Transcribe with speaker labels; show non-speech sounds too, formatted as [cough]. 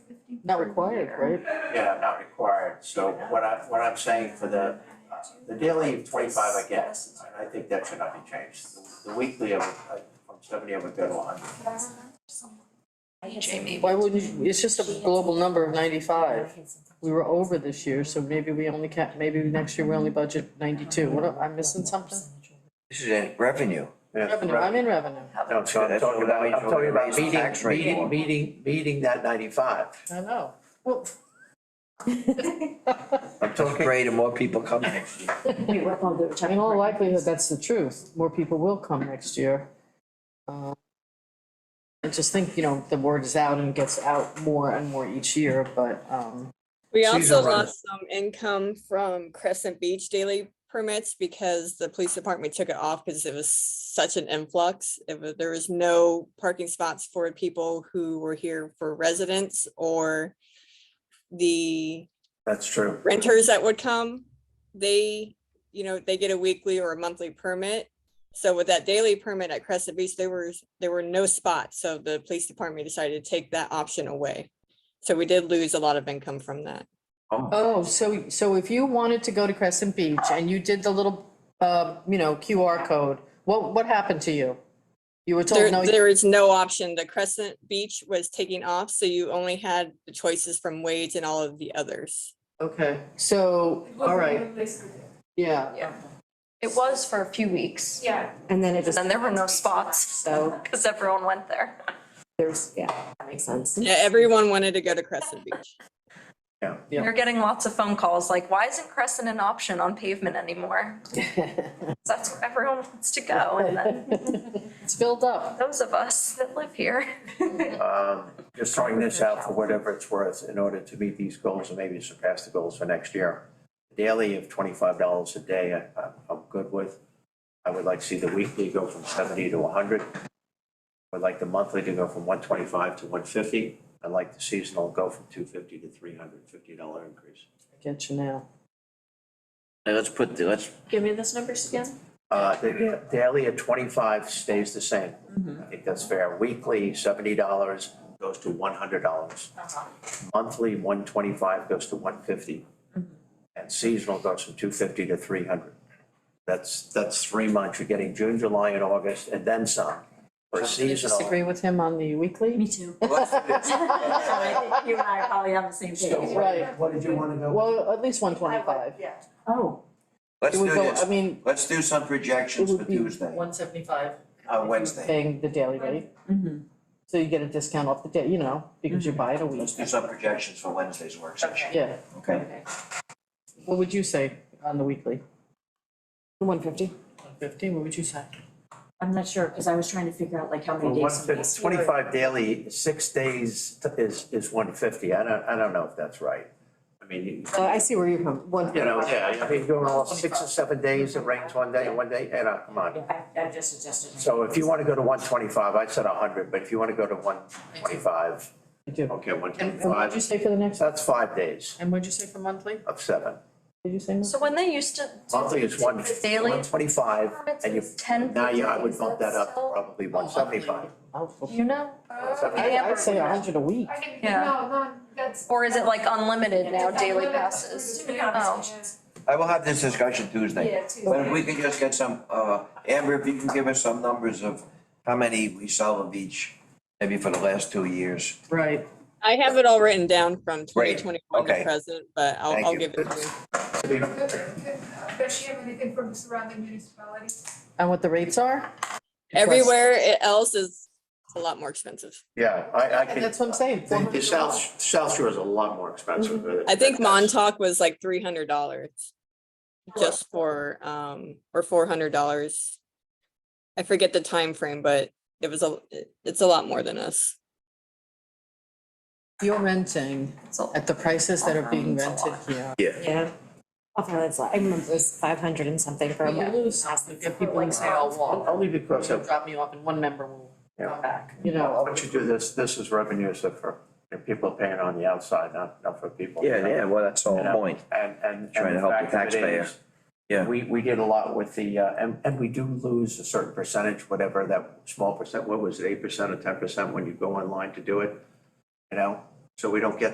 Speaker 1: Not required, right?
Speaker 2: Yeah, not required, so what I, what I'm saying for the, uh, the daily twenty-five I get, and I think that should not be changed. The weekly, I would, I- from seventy, I would go to hundred.
Speaker 3: Jamie.
Speaker 1: Why wouldn't, you- it's just a global number of ninety-five. We were over this year, so maybe we only can, maybe next year we only budget ninety-two. What, am I missing something?
Speaker 4: This is in revenue.
Speaker 1: Revenue, I'm in revenue.
Speaker 2: No, so I'm
Speaker 4: That's
Speaker 2: talking
Speaker 4: the
Speaker 2: about,
Speaker 4: way
Speaker 2: I'm
Speaker 4: to
Speaker 2: talking about
Speaker 4: raise the
Speaker 2: meeting,
Speaker 4: tax rate.
Speaker 2: meeting, meeting, meeting that ninety-five.
Speaker 1: I know. Well,
Speaker 4: I'm just afraid of more people coming next year.
Speaker 1: in all likelihood, that's the truth. More people will come next year. Uh, I just think, you know, the word is out and gets out more and more each year, but, um,
Speaker 5: We
Speaker 2: Seasonal
Speaker 5: also
Speaker 2: rentals.
Speaker 5: lost some income from Crescent Beach daily permits because the police department took it off because it was such an influx. It was, there was no parking spots for people who were here for residents or the
Speaker 2: That's true.
Speaker 5: renters that would come, they, you know, they get a weekly or a monthly permit. So with that daily permit at Crescent Beach, there was, there were no spots, so the police department decided to take that option away. So we did lose a lot of income from that.
Speaker 1: Oh, so, so if you wanted to go to Crescent Beach and you did the little, uh, you know, QR code, what, what happened to you? You were told, no,
Speaker 5: There,
Speaker 1: you-
Speaker 5: there is no option. The Crescent Beach was taking off, so you only had the choices from Wade's and all of the others.
Speaker 1: okay, so, all right, yeah.
Speaker 3: It was for a few weeks,
Speaker 6: Yeah.
Speaker 7: And then it just,
Speaker 3: and there were no spots [laughs]
Speaker 7: so
Speaker 3: because everyone went there.
Speaker 7: there's, yeah, that makes
Speaker 3: [laughs]
Speaker 7: sense.
Speaker 5: Yeah, everyone wanted to go to Crescent Beach.
Speaker 3: We
Speaker 1: Yeah.
Speaker 3: were getting lots of phone calls like, why isn't Crescent an option on pavement anymore? That's where everyone wants to go. And then
Speaker 1: It's filled up.
Speaker 3: those of us that live here.
Speaker 2: Um, just throwing this out for whatever it's worth in order to meet these goals and maybe surpass the goals for next year. Daily of twenty-five dollars a day, I- I'm, I'm good with. I would like to see the weekly go from seventy to hundred. I'd like the monthly to go from one twenty-five to one fifty. I'd like the seasonal go from two fifty to three hundred fifty dollar increase.
Speaker 1: I Get you now.
Speaker 4: Now, let's put, the let's,
Speaker 6: Give me those numbers again.
Speaker 2: Uh, the- the daily at twenty-five stays the same. I think that's fair. Weekly, seventy dollars goes to one hundred dollars. Monthly, one twenty-five goes to one fifty. And seasonal goes from two fifty to three hundred. That's, that's three months. You're getting June, July, and August, and then some.
Speaker 1: Do you
Speaker 2: For
Speaker 1: disagree
Speaker 2: seasonal,
Speaker 1: with him on the weekly?
Speaker 6: Me too.
Speaker 7: You and I are probably on the same page.
Speaker 1: Right,
Speaker 2: what did you wanna go?
Speaker 1: well, at least one twenty-five. It
Speaker 7: Oh,
Speaker 4: let's do
Speaker 1: would go, I
Speaker 4: this.
Speaker 1: mean,
Speaker 4: Let's do some
Speaker 1: it
Speaker 4: projections for
Speaker 1: would be
Speaker 4: Tuesday,
Speaker 1: one seventy-five. Mm-hmm.
Speaker 4: uh, Wednesday.
Speaker 1: Paying the daily rate. So you get a discount off the day, you know, because you buy it a week,
Speaker 4: Let's do some projections for Wednesday's work session,
Speaker 1: yeah.
Speaker 4: okay?
Speaker 1: What would you say on the weekly?
Speaker 7: one fifty.
Speaker 1: One fifty, what would you say?
Speaker 7: I'm not sure, because I was trying to figure out like how many
Speaker 2: Well,
Speaker 7: days.
Speaker 2: one, it's twenty-five daily, six days is, is one fifty. I don't, I don't know if that's right. I mean, you-
Speaker 1: Uh, I see where you're coming, one.
Speaker 2: You know, yeah, I mean, going all six or seven days, it rains one day, one day, and, uh, come on.
Speaker 7: I, I just suggested.
Speaker 2: So if you wanna go to one twenty-five, I said hundred, but if you wanna go to one twenty-five,
Speaker 1: I do.
Speaker 2: okay, one
Speaker 1: And and what did you
Speaker 2: twenty-five,
Speaker 1: say for the next,
Speaker 2: that's five days
Speaker 1: and what'd you say for monthly?
Speaker 2: of seven.
Speaker 1: Did you say monthly?
Speaker 3: So when they used to.
Speaker 2: Monthly is one,
Speaker 3: Daily
Speaker 2: one twenty-five,
Speaker 3: permits
Speaker 2: and you,
Speaker 3: is ten.
Speaker 2: now you,
Speaker 3: per
Speaker 2: I
Speaker 3: day.
Speaker 2: would
Speaker 3: Is
Speaker 2: bump
Speaker 3: that
Speaker 2: that up to
Speaker 3: still-
Speaker 2: probably one seventy-five.
Speaker 1: Oh,
Speaker 3: Do you know?
Speaker 1: I, I'd say a hundred a week.
Speaker 3: Yeah.
Speaker 6: No, no, that's.
Speaker 3: Or is it like unlimited now,
Speaker 6: that's
Speaker 3: daily
Speaker 6: not-
Speaker 3: passes?
Speaker 6: Yeah.
Speaker 3: Oh,
Speaker 4: I will have this discussion Tuesday.
Speaker 7: Yeah,
Speaker 4: But if we can just get some, uh, Amber, if you can give us some numbers of how many we sell of each, maybe for the last two years.
Speaker 1: Right.
Speaker 5: I have it all written down from twenty
Speaker 4: Great,
Speaker 5: twenty-one
Speaker 4: okay.
Speaker 5: to present, but I'll,
Speaker 4: Thank
Speaker 5: I'll
Speaker 4: you.
Speaker 5: give it to you.
Speaker 3: Oh,
Speaker 6: Could- could- Does she have anything from the surrounding municipalities?
Speaker 1: And what the rates are?
Speaker 5: Everywhere e-, else is a lot more expensive.
Speaker 2: Yeah, I, I
Speaker 1: And
Speaker 2: can,
Speaker 1: that's what I'm saying, four
Speaker 2: the
Speaker 1: hundred
Speaker 2: South, South Shore is a lot more expensive.
Speaker 5: Mm-hmm. I think Montauk was like three hundred dollars. Just for, um, or four hundred dollars. I forget the time frame, but it was a, it- it's a lot more than us.
Speaker 1: You're renting
Speaker 3: So-
Speaker 1: at the prices that are being
Speaker 7: It's a
Speaker 1: rented
Speaker 7: lot.
Speaker 1: here.
Speaker 7: Yeah. Okay, that's, I remember it was five hundred and something for a
Speaker 1: You
Speaker 7: month.
Speaker 1: lose, you get people who say, I'll walk,
Speaker 2: Only because
Speaker 1: they'll
Speaker 2: of,
Speaker 1: drop me off and one member will
Speaker 2: Yeah.
Speaker 1: come back, you
Speaker 2: Why
Speaker 1: know.
Speaker 2: don't you do this, this is revenue, so for, you know, people paying on the outside, not, not for people.
Speaker 4: well, that's the
Speaker 2: You know, And, and.
Speaker 4: Trying to help the
Speaker 2: fact of it
Speaker 4: taxpayer.
Speaker 2: is,
Speaker 4: Yeah.
Speaker 2: We, we did a lot with the, uh, and, and we do lose a certain percentage, whatever that small percent, what was it, eight percent or ten percent when you go online to do it? You know, so we don't get